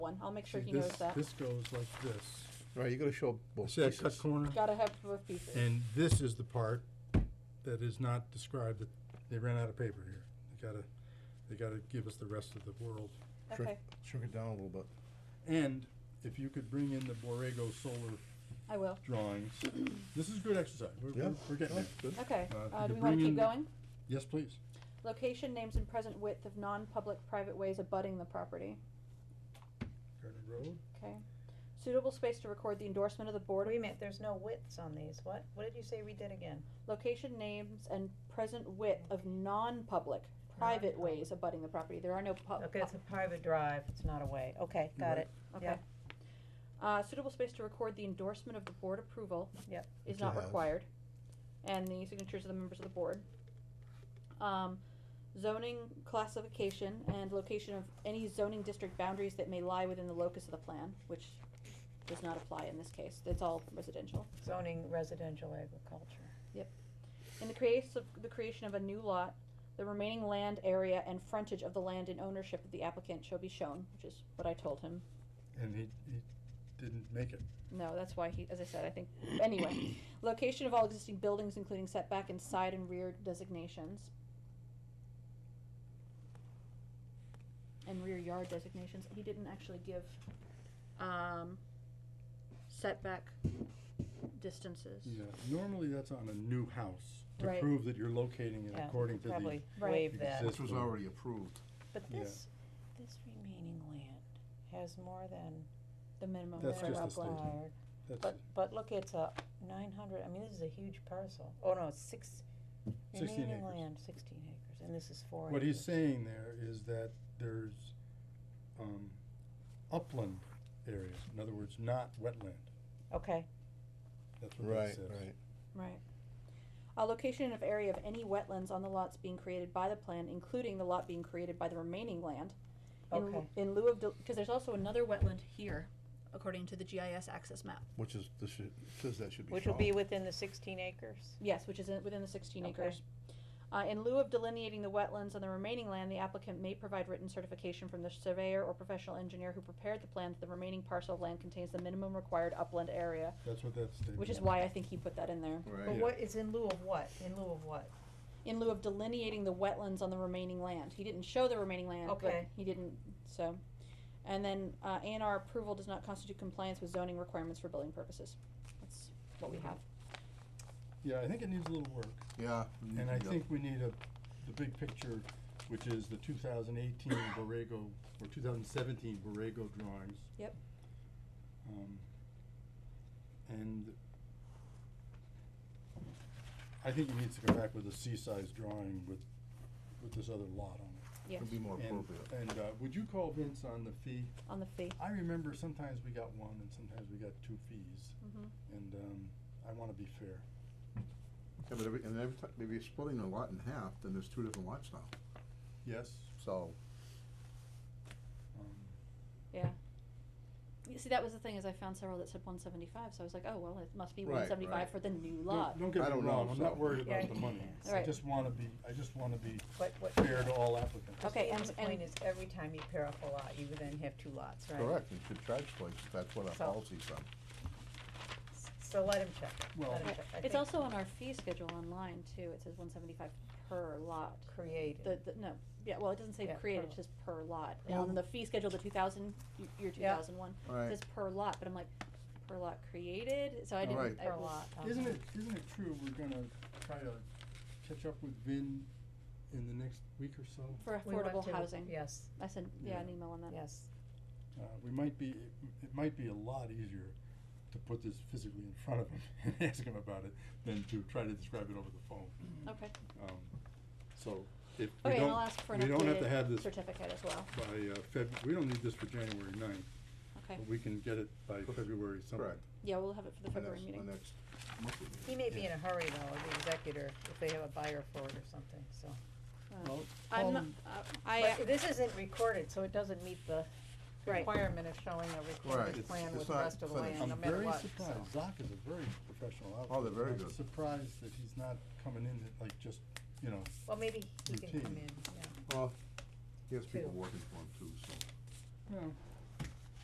one, I'll make sure See, he this- knows that. This goes like this. Right, you gotta show both See that cut pieces. corner? Gotta have both pieces. And this is the part that is not described, that they ran out of paper here. They gotta, they gotta give us the rest of the world. Sure. Okay, Shrink it down a little bit. And if you could bring in the Borrego solar I will, drawings, this is good exercise. We're, Yeah. we're- we're getting there. Good. okay, Uh, if uh, you do we wanna bring in keep the- going? Yes, please. Location, names and present width of non-public private ways abutting the property, Gardner Road. okay? Suitable space to record the endorsement of the board, Wait a minute, there's no widths on these, what, what did you say we did again? location, names and present width of non-public private ways abutting the property, there are no pub- Okay, it's a private drive, it's not a way, okay, You're right. got it, Okay. Yeah. Uh, suitable space to record the endorsement of the board approval. Yep. Is Which not you have. required, and the signatures of the members of the board. Um, zoning classification and location of any zoning district boundaries that may lie within the locus of the plan, which does not apply in this case, it's all residential. zoning residential agriculture. In the case of the creation of a new lot, the remaining land area and frontage of the land in ownership of the applicant shall be shown, which is what I told him. And he, he didn't make it. No, that's why he, as I said, I think, anyway. Location of all existing buildings, including setback and side and rear designations. And rear yard designations, he didn't actually give, um, setback distances. Yeah, normally that's on a new house to Right. prove that you're locating it Yeah, according to the. Probably Right. waive that, Exist- This was already approved. but Yeah. this, this remaining land has more than The minimum That's rear just a lot line. statement. required. that's But, but look, it's a nine hundred, I mean, this is a huge parcel, oh no, it's six, 16 remaining acres. land, sixteen acres, and this is four acres. What he's saying there is that there's, um, upland areas, in other words, not wetland. Okay, That's what that Right, says. right. Right. A location of area of any wetlands on the lots being created by the plan, including the lot being created by the remaining land. in l- Okay. In lieu of, because there's also another wetland here, according to the GIS access map. Which is, this should, says that should be shown. which will be within the sixteen acres? Yes, which is in- within the sixteen Okay. acres. Uh, in lieu of delineating the wetlands on the remaining land, the applicant may provide written certification from the surveyor or professional engineer who prepared the plan that the remaining parcel of land contains the minimum required upland area, That's what that statement. which is why I think he put that in there. But Right. what, it's in lieu of what, in lieu of what? in lieu of delineating the wetlands on the remaining land. He didn't show the remaining land, but Okay. he didn't, so. And then, uh, A and R approval does not constitute compliance with zoning requirements for building purposes. That's what we have. Yeah, I think it needs a little work, Yeah. you- and I yeah. think we need a, the big picture, which is the two thousand eighteen Borrego, or two thousand seventeen Borrego drawings. Yep. Um, and I think he needs to come back with a C-size drawing with, with this other lot on it. Yes, Would be more And- appropriate. And, uh, would you call Vince on the fee? on the fee. I remember sometimes we got one and sometimes we got two fees, Mhm. and, um, I wanna be fair. Yeah, but every, and every time, maybe you're splitting a lot in half, then there's two different lots now, Yes? so. Um, Yeah. You see, that was the thing, is I found several that said one seventy-five, so I was like, oh, well, it must be Right, one seventy-five right. for the new don't- lot. Don't get I me don't know, wrong, I'm not so- worried Yeah, about the money. yeah. I Alright. just wanna be, I just wanna be What, what? fair to all applicants. Okay, and- Christine's point and- is every time you pair up a lot, you would then have two lots, right? Correct, you should charge places, that's what our So- policy's on. S- So let him check, it, Well- let him Right. check. I It's think also on our fee schedule online too, it says one seventy-five per lot. The, Created, the, no, yeah, well, it doesn't say Yeah, created, per it says per lot. Yeah. On the fee schedule, the two thousand, year two Yeah. thousand one, Right. it says per lot, but I'm like, per lot created, so I didn't, Right. I per was- lot. um, Isn't it, isn't it true we're gonna try to catch up with Vin in the next week or so? for we want affordable to- housing. Yes, I sent, yeah, an Yeah. email on that. yes. Uh, we might be, it- it might be a lot easier to put this physically in front of him and ask him about it than to try to describe it over the phone. Okay, Um, so if we okay, and I'll don't, ask for an we don't have to have updated this certificate as well, by, uh, Feb, we don't need this for January ninth, okay. but we can get it by February something. Correct. Yeah, we'll have it for the The February next- meeting. The next monthly meeting. He may be in a hurry though, the executor, if they have a buyer for it or something, so. Uh, Well, I'm not, um, uh, I, But this isn't recorded, so it doesn't meet the right, requirement of showing a Right, recorded it's- plan it's with the not rest of the finished. land, no I'm matter very what, so. surprised, Zoc is a very professional outfit. Oh, they're very I'm good. Surprised that he's not coming in at, like just, you know, Well, maybe he can come Routine. in, yeah. Well, he has people Two. working for him too, so. well,